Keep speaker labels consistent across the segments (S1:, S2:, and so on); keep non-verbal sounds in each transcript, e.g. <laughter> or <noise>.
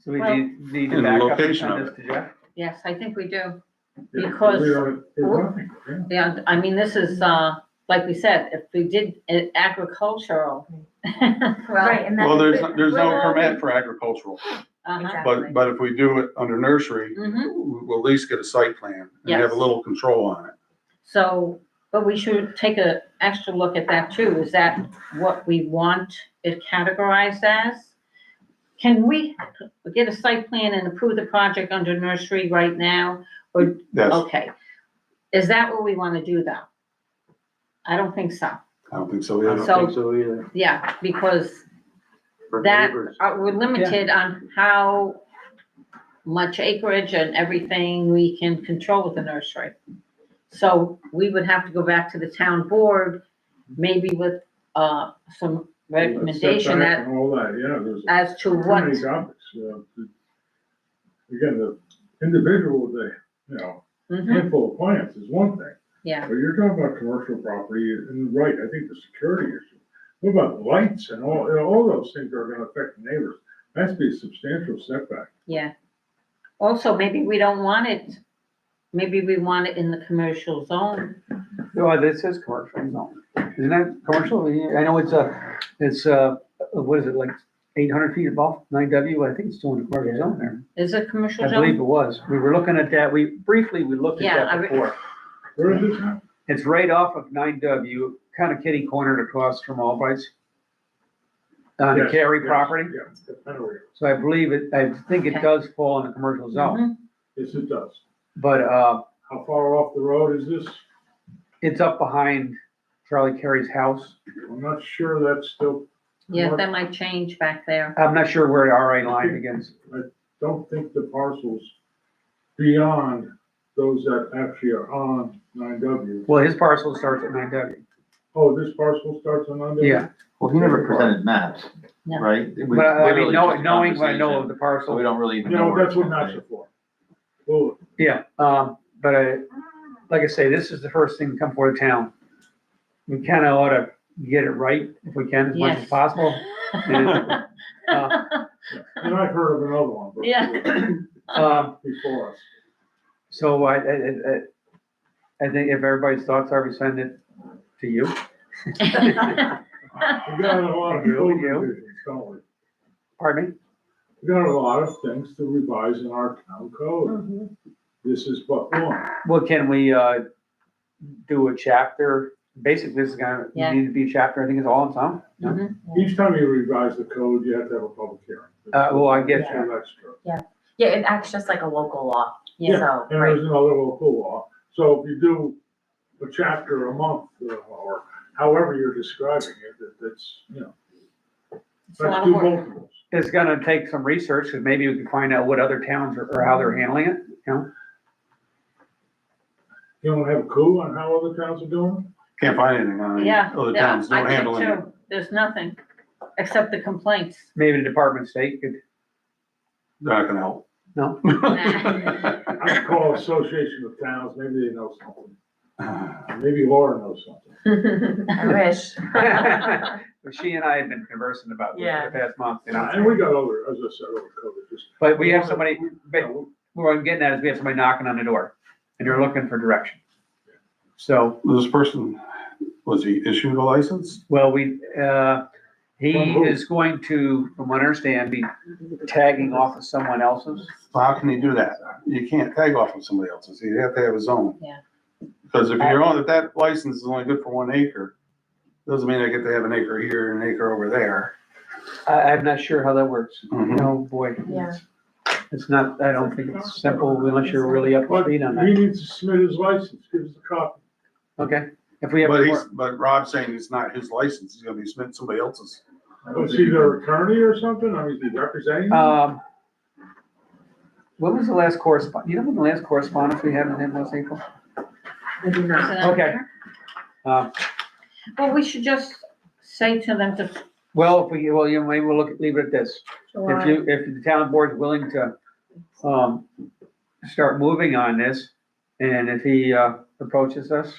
S1: So we
S2: Well-
S1: need, need to
S3: And the
S1: back up and
S3: location
S1: send
S3: of
S1: this to Jeff?
S2: Yes, I think we do.
S4: There's-
S2: Because-
S4: there are- there's nothing, yeah.
S2: Yeah, I mean, this is, uh, like we said, if we did it agricultural. <laughs>
S5: Right, and that's.
S3: Well, there's, there's no
S5: Well,
S3: permit for agricultural,
S2: Uh-huh.
S3: but, but if we do it under nursery,
S2: hmm
S3: we'll at least get a site plan and have
S2: Yes.
S3: a little control on it.
S2: so, but we should take a extra look at that too. Is that what we want it categorized as? Can we get a site plan and approve the project under nursery right now?
S3: That's,
S2: Okay. Is that what we want to do though? I don't think so.
S3: I don't think so
S6: I
S3: either.
S6: don't think so either.
S2: Yeah, because
S6: for
S2: That-
S6: neighbors.
S2: uh, we're limited on how much acreage and everything we can control with the nursery. So we would have to go back to the town board, maybe with, uh, some recommendation
S4: Setback
S2: that,
S4: And all that, yeah, there's.
S2: as to
S4: too
S2: what,
S4: many topics, you know, to- Again, the individual, with a you know,
S2: Mhm,
S4: handful of plants is one thing,
S2: yeah,
S4: but you're talking about commercial property, and you're right, I think the security issue. What about lights and all, you know, all those things are gonna affect the neighbors, that's be a substantial setback.
S2: yeah. Also, maybe we don't want it, maybe we want it in the commercial zone.
S6: uh,
S1: No, this is commercial, no.
S6: Isn't that commercial? Yeah, I know it's a, it's a, uh, what is it, like eight hundred feet above nine W? I think it's still in the commercial zone there.
S2: Is it commercial
S6: I believe
S2: zone?
S6: it was. We were looking at that. We, briefly, we looked at
S2: Yeah, I
S6: that
S2: re-
S6: before.
S4: Where is this now?
S6: It's right off of nine W, kind of kitty cornered across from Albright's. On the
S4: Yes,
S6: Cary
S4: yes,
S6: property.
S4: Yeah, that's kind of weird.
S6: So I believe it, I think
S2: Okay.
S6: it does fall in the commercial zone.
S2: Mhm,
S4: yes, it does.
S6: But, uh,
S4: How far off the road is this?
S6: it's up behind Charlie Carey's house.
S4: I'm not sure that's still,
S2: Yeah, that might change back
S6: <laughs>
S2: there.
S6: I'm not sure where the RA line begins.
S4: don't think the parcels beyond those that actually are on nine W.
S6: Well, his parcel starts at nine W.
S4: Oh, this parcel starts on nine W?
S6: Yeah.
S7: Well, he never presented maps,
S2: No.
S7: right? It was
S6: But uh, I mean,
S7: literally
S6: knowing,
S7: just
S6: knowing what I know of
S7: conversation,
S6: the
S7: So we
S6: parcel,
S7: don't really even
S4: You
S7: know.
S4: know,
S7: where
S4: that's
S7: it's
S4: what
S7: gonna
S4: maps
S7: be.
S4: are for. Well,
S6: yeah, um, but I, like I say, this is the first thing to come for the town. We kinda ought to get it right if we can, as much as
S2: Yes.
S6: possible. And, uh,
S4: and I've heard of another one. but-
S2: Yeah.
S6: Um,
S4: <coughs> Before us.
S6: so I, I, I, I think if everybody's thoughts are, we send it to you.
S2: Mm-hmm.
S4: We've got a lot of
S6: You,
S4: code
S6: you.
S4: revisions, don't we?
S6: Pardon me?
S4: We've got a lot of things to revise in our town code. This is but one.
S6: Well, can we, uh, do a chapter? Basically, this is gonna,
S2: Yeah.
S6: need to be a chapter, I think it's all in some.
S2: Mhm.
S4: Each time you revise the code, you have to have a public hearing.
S6: Uh, well, I get
S5: you.
S4: That's true.
S5: Yeah, it acts just like a local law,
S2: Yeah.
S5: so,
S4: And
S5: right,
S4: there's another local law. So if you do a chapter a month uh, or however you're describing it, that, that's, you know,
S2: It's a
S4: that's
S2: lot of
S4: two
S2: work.
S4: multiples.
S6: It's gonna take some research, because maybe we can find out what other towns are, or how they're handling it, you know?
S4: You don't have a clue on how other towns are doing?
S3: Can't find anything on it.
S2: Yeah.
S3: Other
S2: yeah,
S3: towns
S2: I
S3: don't
S2: did
S3: handle it.
S2: too. There's nothing, except the complaints.
S6: Maybe the Department of State could,
S3: They're not gonna help.
S6: No.
S4: I could call Association of Towns, maybe they know something.
S3: Well,
S4: Maybe Laura knows something.
S5: <laughs> I wish.
S3: <laughs>
S6: she and I have been conversing about this for the past month, you
S4: And we
S6: know?
S4: got other, as I said, other code, it's just. uh,
S6: But we have somebody,
S4: We-
S6: but what I'm getting at is we have somebody knocking on the door, and they're looking for direction. So,
S3: <laughs> This person, was he issued a license?
S6: well, we, uh, he
S4: From who?
S6: is going to, from what I understand, be tagging off of someone else's.
S3: How can he do that? You can't tag off of somebody else's. You have to have his own.
S2: Yeah.
S3: Because if you're on, if that license is only good for one acre, doesn't mean I get to have an acre here and an acre over there.
S6: I, I'm not sure how that works.
S4: Mm-hmm.
S3: Mhm.
S6: No, boy.
S5: Yeah.
S6: It's not, I don't think it's simple unless you're really up to
S4: But he
S6: speed on that.
S4: needs to submit his license, give us a copy.
S6: Okay, if we have.
S3: But
S6: more-
S3: he's, but Rob's saying it's not his license. He's gonna be submitting somebody else's.
S4: Was he their attorney or something? I mean, is he representing? them?
S6: Um, when was the last correspond, you know when the last correspondence we had with him was April?
S5: I do not.
S2: Isn't that
S6: Okay.
S2: fair?
S6: Uh,
S2: Well, we should just say to them to,
S6: well, if we, well, you know, maybe we'll look, leave it at this. If
S5: July,
S6: you, if the town board's willing to, um, start moving on this, and if he, uh, approaches us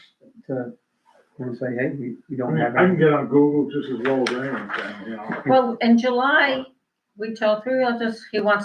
S6: to, and say, hey, we, we
S4: I
S6: don't
S4: mean,
S6: have.
S4: I can get on Google just as well as anyone can, you know?
S2: well, in July, we tell three others he wants